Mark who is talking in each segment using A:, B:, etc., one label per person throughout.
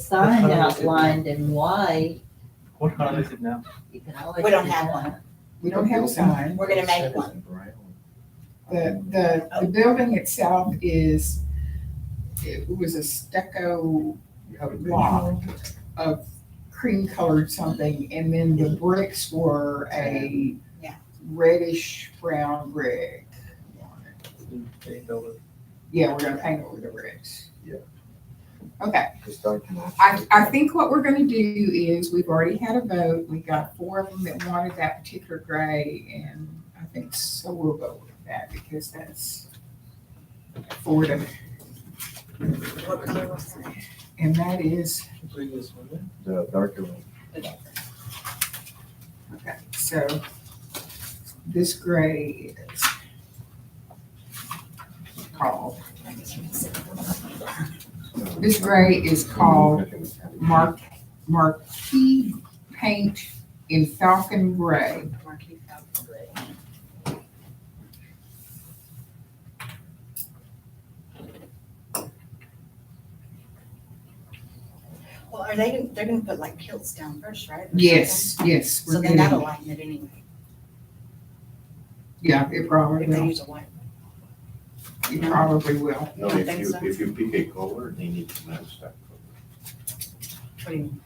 A: sign
B: What color is it?
A: outlined in white,
B: What color is it now?
A: you can always.
C: We don't
A: do
C: have
A: that.
D: We don't have a sign.
C: We're gonna make one.
D: The, the, the building itself is, it was a stucco block of cream colored something, and then the bricks were a
C: Yeah.
D: reddish brown brick.
B: They built it.
D: Yeah, we're gonna paint over the bricks.
E: Yeah.
D: Okay, I, I think what we're gonna do is, we've already had a vote, we got four of them that wanted that particular gray, and I think so we'll go with that, because that's four to,
C: What color was that?
D: and that is,
B: The previous one, yeah?
E: The darker one.
D: okay, so this gray is called, this gray is called Mark, Marquee Paint in Falcon Gray.
C: Marquee Falcon Gray. Well, are they, they're gonna put like kilts down first, right? or something?
D: Yes, yes,
C: So
D: we're
C: then that'll
D: getting,
C: lighten it anyway,
D: yeah, it probably
C: if they
D: will,
C: use a white.
D: it probably will.
E: No,
C: I
E: if
C: think
E: you,
C: so.
E: if you pick a color, they need to match that color.
C: What do you mean?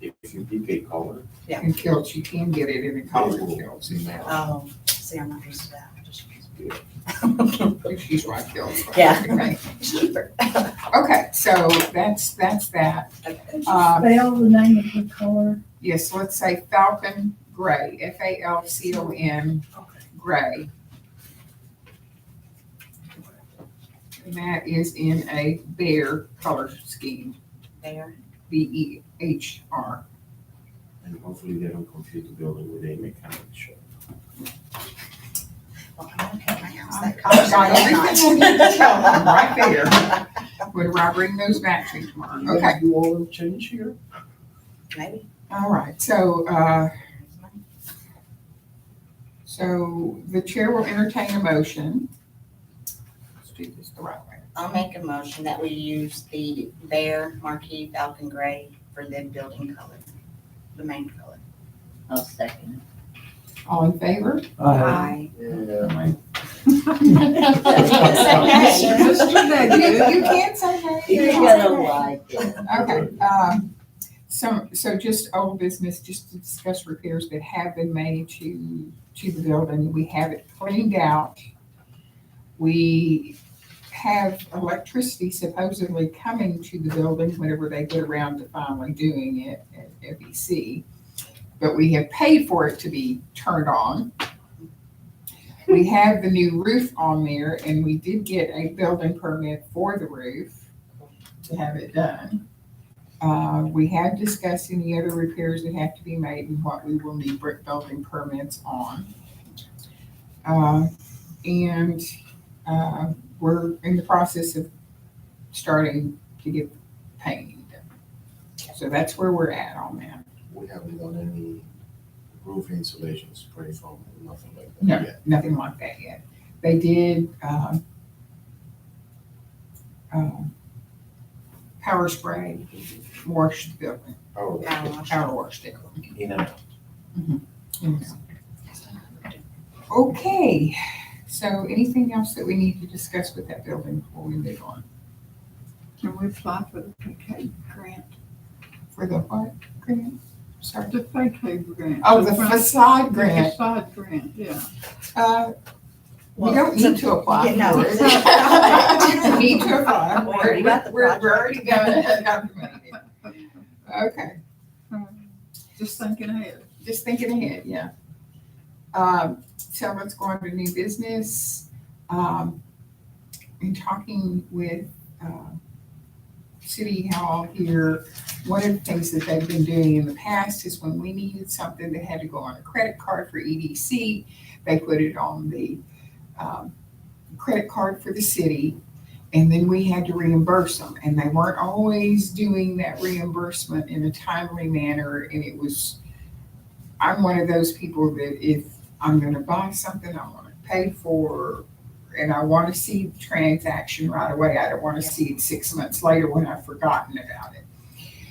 E: If you pick a color,
D: And kilts, you can get it in a colored kilts.
C: Oh, see, I'm not used to that. I'm just used to-
D: She's right, kilts. right?
C: Yeah.
D: Okay.
C: It's cheaper.
D: Okay, so that's, that's that.
C: Okay.
D: Uh,
A: Spell the name of the color.
D: yes, let's say Falcon Gray, F A L C O N Gray. And that is in a bear color scheme,
C: There,
D: B E H R.
E: and hopefully they don't confuse the building with a mechanic shop.
C: well, I'm gonna paint my house
D: I've
C: that
D: got everything I need to tell them
C: color.
D: right there. Whenever I bring those back to you tomorrow, okay?
B: You want to change here?
C: Maybe.
D: All right, so, uh, so the chair will entertain a motion. Let's do this the right way.
C: I'll make a motion that we use the Bear Marquee Falcon Gray for the building color, the main color.
A: I'll second.
D: All in favor?
C: Aye.
E: Yeah.
D: You you can't say
A: You're
D: hey.
A: gonna like it.
D: Okay, um, so, so just old business, just to discuss repairs that have been made to, to the building. We have it cleaned out. We have electricity supposedly coming to the building whenever they get around to finally doing it at FEC. But we have paid for it to be turned on. We have the new roof on there and we did get a building permit for the roof to have it done. Uh, we have discussed any other repairs that have to be made and what we will need brick building permits on. Uh, and, uh, we're in the process of starting to get painting done. So that's where we're at on that.
E: We haven't done any roof insulation spray foam, nothing like
D: No.
E: that yet.
D: nothing like that yet. They did, um, um, power spray, washed the building,
E: Oh,
C: Power wash.
D: power washed it.
E: in and out.
D: Okay, so anything else that we need to discuss with that building before we move on?
F: Can we apply for the vacate grant,
D: For the what grant? Sorry.
F: the vacate grant?
D: Oh, the
F: front-
D: facade
F: the
D: grant.
F: Facade grant, yeah.
D: Uh, we don't need to apply
C: Yeah, no.
D: for it. We Need to apply.
C: We already got the
D: We're,
C: project.
D: we're already gonna, got the money. Okay.
F: Just thinking ahead.
D: just thinking ahead, yeah. Um, so let's go on to new business. Um, in talking with, uh, City Hall here, one of the things that they've been doing in the past is when we needed something that had to go on a credit card for EDC, they put it on the, um, credit card for the city. And then we had to reimburse them, and they weren't always doing that reimbursement in a timely manner, and it was I'm one of those people that if I'm gonna buy something, I wanna pay for, and I wanna see the transaction right away. I don't wanna see it six months later when I've forgotten about it.